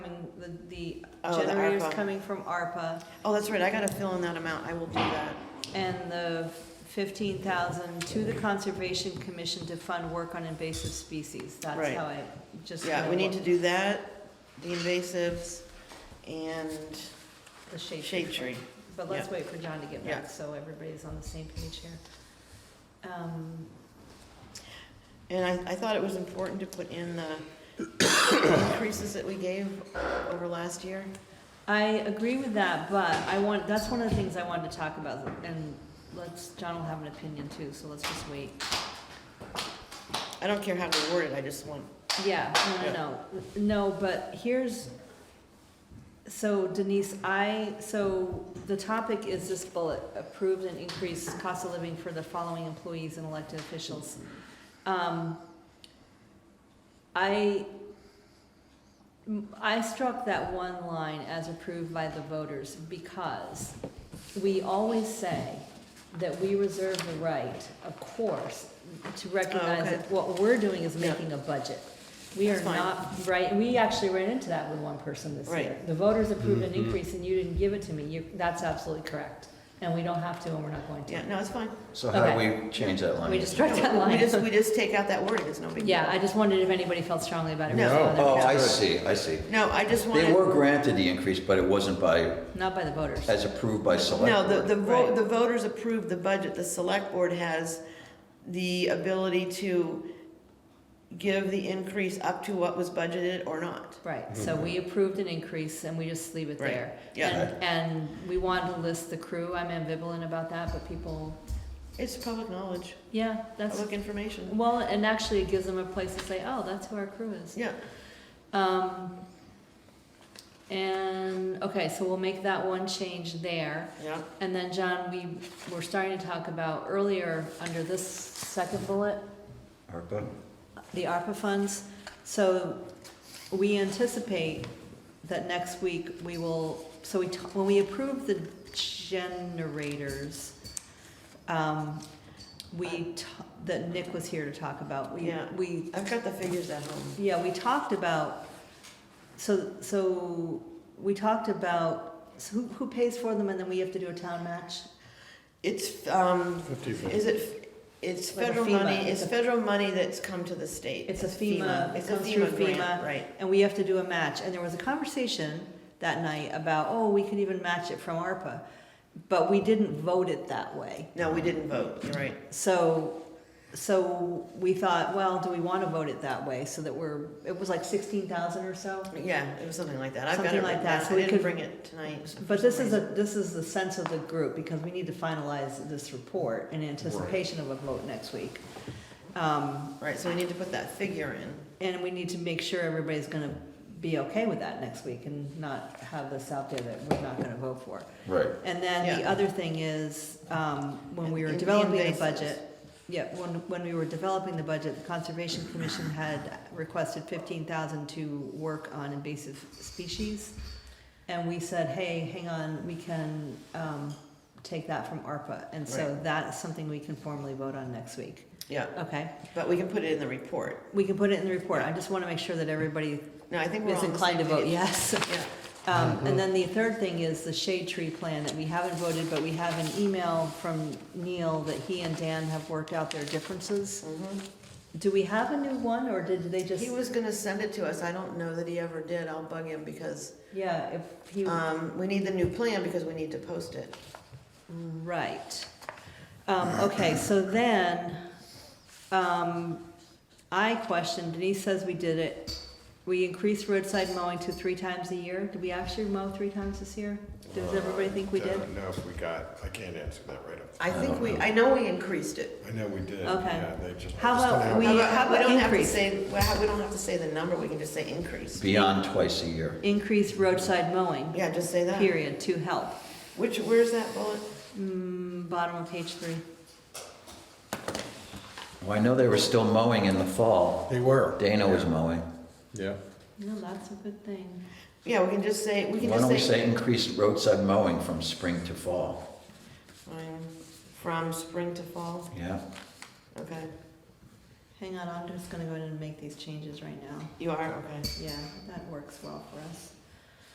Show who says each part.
Speaker 1: the, the
Speaker 2: Oh, the
Speaker 1: generators
Speaker 2: ARPA.
Speaker 1: coming from ARPA
Speaker 2: Oh, that's right, I gotta fill in that amount, I will do that.
Speaker 1: and the fifteen thousand to the Conservation Commission to fund work on invasive species. That's
Speaker 2: Right.
Speaker 1: how I just.
Speaker 2: Yeah, we need to
Speaker 1: kinda
Speaker 2: do that, the invasives, and
Speaker 1: worked The shade.
Speaker 2: shade tree.
Speaker 1: But let's
Speaker 2: Yeah.
Speaker 1: wait for John to get back,
Speaker 2: Yeah.
Speaker 1: so everybody's on the same page here. Um,
Speaker 2: And I, I thought it was important to put in the increases that we gave over last year.
Speaker 1: I agree with that, but I want, that's one of the things I wanted to talk about, and let's, John will have an opinion too, so let's just wait.
Speaker 2: I don't care how we word it, I just want,
Speaker 1: Yeah, no,
Speaker 2: Yeah.
Speaker 1: no, no, no, but here's, so Denise, I, so the topic is this bullet, approved and increased cost of living for the following employees and elected officials. Um, I, I struck that one line as approved by the voters because we always say that we reserve the right, of course, to recognize
Speaker 2: Oh, okay.
Speaker 1: that what we're doing is
Speaker 2: Yeah.
Speaker 1: making a budget. We are
Speaker 2: That's fine.
Speaker 1: not, right, we actually ran into that with one person this year.
Speaker 2: Right.
Speaker 1: The voters approved an increase and you didn't give it to me, you, that's absolutely correct. And we don't have to and we're not going
Speaker 2: yeah,
Speaker 1: to.
Speaker 2: no, it's fine.
Speaker 3: So how do
Speaker 1: Okay.
Speaker 3: we change that line?
Speaker 1: We just struck that
Speaker 2: We just,
Speaker 1: line.
Speaker 2: we just take out that wording, it's no big deal.
Speaker 1: Yeah, I just wondered if anybody felt strongly about it.
Speaker 2: No.
Speaker 1: versus
Speaker 3: Oh,
Speaker 1: others.
Speaker 3: I see, I see.
Speaker 2: No, I just
Speaker 3: They
Speaker 2: wanted,
Speaker 3: were granted the increase, but it wasn't by,
Speaker 1: Not by the voters.
Speaker 3: as approved by select
Speaker 2: no, the,
Speaker 3: board.
Speaker 2: the vote,
Speaker 1: Right.
Speaker 2: the voters approved the budget, the select board has the ability to give the increase up to what was budgeted or not.
Speaker 1: Right, so we approved an increase and we just leave it
Speaker 2: Right,
Speaker 1: there.
Speaker 2: yeah.
Speaker 1: And, and we wanted to list the crew, I'm ambivalent about that, but people,
Speaker 2: It's public knowledge,
Speaker 1: yeah, that's,
Speaker 2: public information,
Speaker 1: well, and actually it gives them a place to say, oh, that's who our crew is.
Speaker 2: yeah.
Speaker 1: Um, and, okay, so we'll make that one change there.
Speaker 2: Yeah,
Speaker 1: And then, John, we were starting to talk about earlier, under this second bullet,
Speaker 3: ARPA?
Speaker 1: the ARPA funds. So we anticipate that next week we will, so we, t- when we approve the generators, um, we, t- that Nick was here to talk about, we,
Speaker 2: Yeah.
Speaker 1: we
Speaker 2: I've got the figures at home.
Speaker 1: yeah, we talked about, so, so, we talked about, so who, who pays for them and then we have to do a town match?
Speaker 2: It's, um, is it, it's
Speaker 1: Like a
Speaker 2: federal
Speaker 1: FEMA,
Speaker 2: money,
Speaker 1: it's
Speaker 2: it's
Speaker 1: a-
Speaker 2: federal money that's come to the state.
Speaker 1: It's a FEMA, it
Speaker 2: It's a
Speaker 1: comes through
Speaker 2: FEMA grant,
Speaker 1: FEMA,
Speaker 2: right.
Speaker 1: and we have to do a match, and there was a conversation that night about, oh, we could even match it from ARPA, but we didn't vote it that way.
Speaker 2: No, we didn't vote, you're right.
Speaker 1: So, so we thought, well, do we wanna vote it that way, so that we're, it was like sixteen thousand or so?
Speaker 2: Yeah, it was something like that. I've got
Speaker 1: Something
Speaker 2: it
Speaker 1: like
Speaker 2: written
Speaker 1: that,
Speaker 2: down.
Speaker 1: so
Speaker 2: I
Speaker 1: we
Speaker 2: didn't
Speaker 1: could-
Speaker 2: bring it tonight.
Speaker 1: But
Speaker 2: for
Speaker 1: this
Speaker 2: some
Speaker 1: is a,
Speaker 2: reason.
Speaker 1: this is the sense of the group, because we need to finalize this report in anticipation of a vote next week. Um,
Speaker 2: Right, so we need to put that figure in.
Speaker 1: and we need to make sure everybody's gonna be okay with that next week and not have this out there that we're not gonna vote for.
Speaker 3: Right.
Speaker 1: And then the
Speaker 2: Yeah.
Speaker 1: other thing is, um, when we were
Speaker 2: In- in the
Speaker 1: developing the
Speaker 2: invasives.
Speaker 1: budget, yeah, when, when we were developing the budget, the Conservation Commission had requested fifteen thousand to work on invasive species. And we said, hey, hang on, we can, um, take that from ARPA, and so
Speaker 2: Right.
Speaker 1: that's something we can formally vote on next week,
Speaker 2: Yeah,
Speaker 1: okay?
Speaker 2: but we can put it in the report.
Speaker 1: We can put it in the report, I just wanna make sure that everybody
Speaker 2: No, I think we're
Speaker 1: is
Speaker 2: all on the same
Speaker 1: inclined to vote
Speaker 2: page.
Speaker 1: yes.
Speaker 2: Yeah, Uh-huh.
Speaker 1: Um, and then the third thing is the shade tree plan that we haven't voted, but we have an email from Neil that he and Dan have worked out their differences.
Speaker 2: mhm.
Speaker 1: Do we have a new one, or did they just,
Speaker 2: He was gonna send it to us. I don't know that he ever did. I'll bug him because,
Speaker 1: yeah, if he,
Speaker 2: um, we need the new plan because we need to post it.
Speaker 1: right. Um, okay, so then, um, I questioned, Denise says we did it. We increased roadside mowing to three times a year. Did we actually mow three times this year? Does everybody think we
Speaker 4: I
Speaker 1: did?
Speaker 4: don't know if we got, I can't answer that right up.
Speaker 2: I
Speaker 3: I
Speaker 2: think
Speaker 3: don't
Speaker 2: we,
Speaker 3: know.
Speaker 2: I know we increased it.
Speaker 4: I know we did,
Speaker 1: Okay.
Speaker 4: yeah, they just.
Speaker 1: How
Speaker 4: just
Speaker 1: about
Speaker 4: don't have-
Speaker 1: we-
Speaker 2: How about-
Speaker 1: how about
Speaker 2: We don't have to
Speaker 1: increase?
Speaker 2: say, well, how- we don't have to say the number, we can just say increase.
Speaker 3: Beyond twice a year.
Speaker 1: Increased roadside mowing,
Speaker 2: Yeah, just say that.
Speaker 1: period, to help.
Speaker 2: Which, where's that bullet?
Speaker 1: Mm, bottom of page three.
Speaker 3: Well, I know they were still mowing in the fall.
Speaker 4: They were.
Speaker 3: Dana was mowing.
Speaker 4: Yeah.
Speaker 1: No, that's a good thing.
Speaker 2: Yeah, we can just say, we can
Speaker 3: Why
Speaker 2: just
Speaker 3: don't
Speaker 2: say.
Speaker 3: we say increased roadside mowing from spring to fall?
Speaker 2: Um, From spring to fall,
Speaker 3: Yeah?
Speaker 2: okay.
Speaker 1: Hang on, I'm just gonna go ahead and make these changes right now.
Speaker 2: You are, okay.
Speaker 1: Yeah, that works well for us.